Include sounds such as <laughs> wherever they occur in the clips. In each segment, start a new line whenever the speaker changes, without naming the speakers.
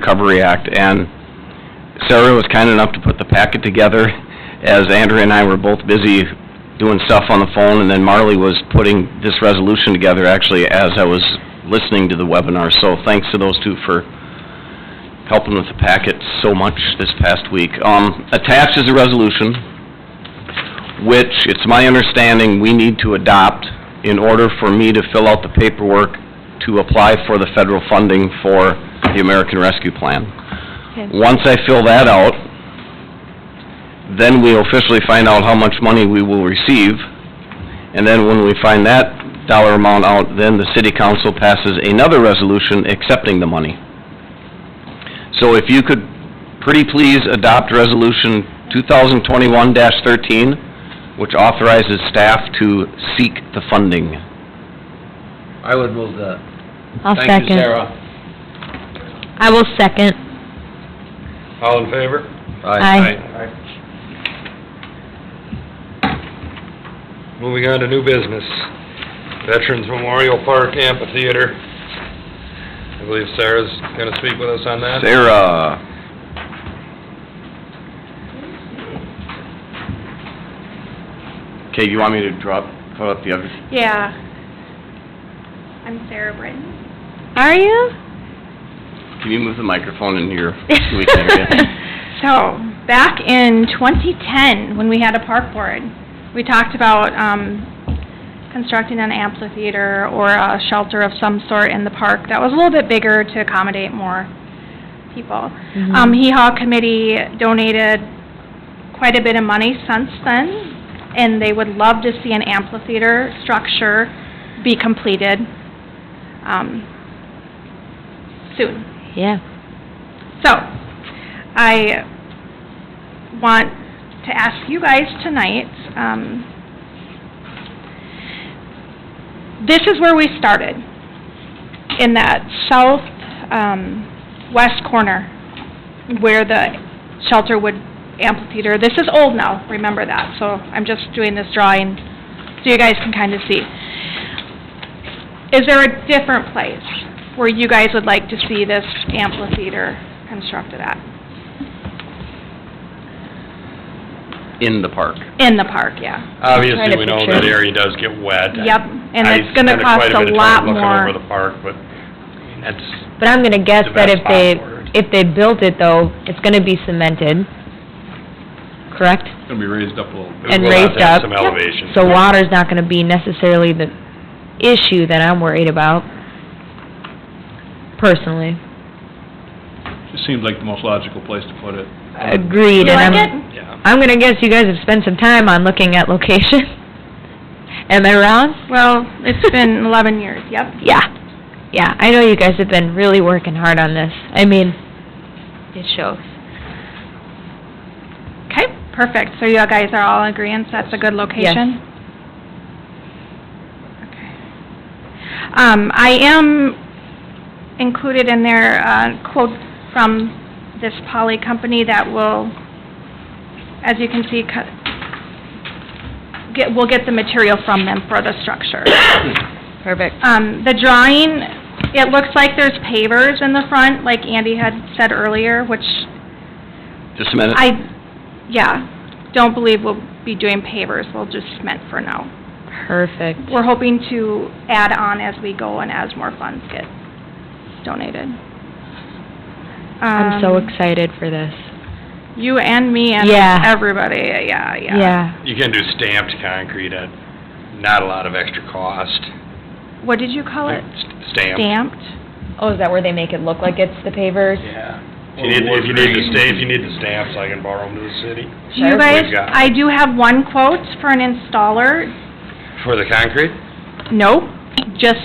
Recovery Act, and Sarah was kind enough to put the packet together as Andrew and I were both busy doing stuff on the phone, and then Marley was putting this resolution together actually as I was listening to the webinar, so thanks to those two for helping with the packet so much this past week. Um, attached is a resolution, which it's my understanding we need to adopt in order for me to fill out the paperwork to apply for the federal funding for the American Rescue Plan. Once I fill that out, then we officially find out how much money we will receive, and then when we find that dollar amount out, then the city council passes another resolution accepting the money. So if you could, pretty please adopt Resolution 2021-13, which authorizes staff to seek the funding.
I would move that.
I'll
Thank you,
second.
Sarah.
I will second.
All in favor?
Aye.
Moving on to new business, Veterans Memorial Park Amphitheater. I believe Sarah's gonna speak with us on that.
Sarah, okay, you want me to drop, put up the other?
Yeah. I'm Sarah Britton.
Are you?
Can you move the microphone in here? so
<laughs>
we can hear you?
So, back in 2010, when we had a park board, we talked about um, constructing an amphitheater or a shelter of some sort in the park that was a little bit bigger to accommodate more people. Um, Hee Haw Committee donated quite a bit of money since then, and they would love to see an amphitheater structure be completed, um, soon.
Yeah.
So, I want to ask you guys tonight, um, this is where we started, in that south, um, west corner, where the shelter would, amphitheater, this is old now, remember that, so I'm just doing this drawing so you guys can kind of see. Is there a different place where you guys would like to see this amphitheater constructed at?
In the park.
In the park, yeah.
Obviously,
Trying to
we know
picture
that
it.
area does get wet.
Yep, and
I
it's gonna
spent
cost
quite
a
bit of
lot
time
more.
Looking over the park, but that's,
But I'm gonna guess
The
that
best
if they,
spot for it.
if they built it though, it's gonna be cemented, correct?
It's gonna be raised up a little bit.
And
we'll have
raised
to
up.
have some elevation.
So
uh,
water's not gonna be necessarily the issue that I'm worried about, personally.
Just seems like the most logical place to put it.
Agreed,
You
and I'm,
like it?
Yeah.
I'm gonna guess you guys have spent some time on looking at location. <laughs> Am I wrong?
Well, it's been <laughs> 11 years, yep.
Yeah, yeah, I know you guys have been really working hard on this. I mean, it shows.
Okay, perfect. So you guys are all in agreeance that's a good location? Okay. Um, I am included in there uh quote from this poly company that will, as you can see, cut- get, we'll get the material from them for the structure.
Perfect.
Um, the drawing, it looks like there's pavers in the front, like Andy had said earlier, which
Just a
Uh.
minute.
I, yeah, don't believe we'll be doing pavers, we'll just cement for now.
Perfect.
We're hoping to add on as we go and as more funds get donated.
I'm so
Um,
excited for this.
You and me and
Yeah.
everybody, yeah, yeah.
Yeah.
You can do stamped concrete at not a lot of extra cost.
What did you call it?
Stamped.
Stamped?
Oh, is that where they make it look like it's the pavers?
Yeah. If you need, if you need the sta, if you need the stamps, I can borrow them to the city.
Do you
Sure.
guys,
We've got it.
I do have one quote for an installer,
For the concrete?
nope, just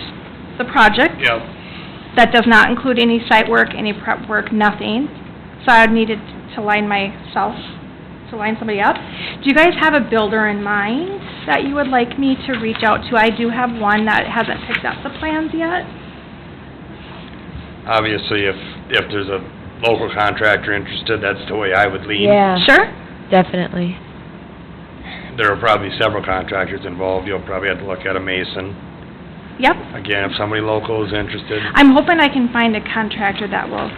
the project.
Yep.
That does not include any site work, any prep work, nothing. So I needed to line myself, to line somebody up. Do you guys have a builder in mind that you would like me to reach out to? I do have one that hasn't picked up the plans yet.
Obviously, if, if there's a local contractor interested, that's the way I would lean.
Yeah,
Sure.
definitely.
There are probably several contractors involved, you'll probably have to look at a mason.
Yep.
Again, if somebody local is interested,
I'm hoping I can find a contractor that will